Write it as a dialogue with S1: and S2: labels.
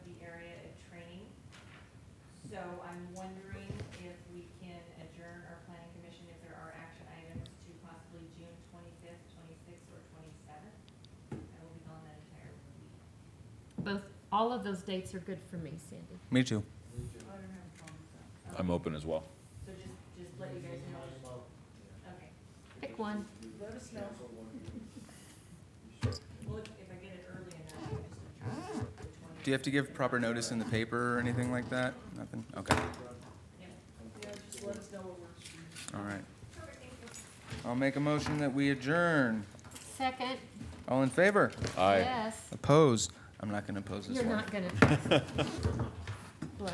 S1: so I'm wondering if we can adjourn our planning commission if there are action items to possibly June twenty-fifth, twenty-sixth, or twenty-seventh. I will be gone that entire week.
S2: Both, all of those dates are good for me, Sandy.
S3: Me too.
S4: I'm open as well.
S1: So just, just let you guys know, okay.
S2: Pick one.
S1: Let us know. Well, if if I get it early enough, I can just adjourn the
S3: Do you have to give proper notice in the paper or anything like that? Nothing? Okay,
S1: 20th. Yep.
S3: all right. I'll make a motion that we adjourn.
S2: Second,
S3: All in favor?
S4: Aye.
S2: yes.
S3: Oppose? I'm not gonna oppose this
S2: You're
S3: one.
S2: not gonna.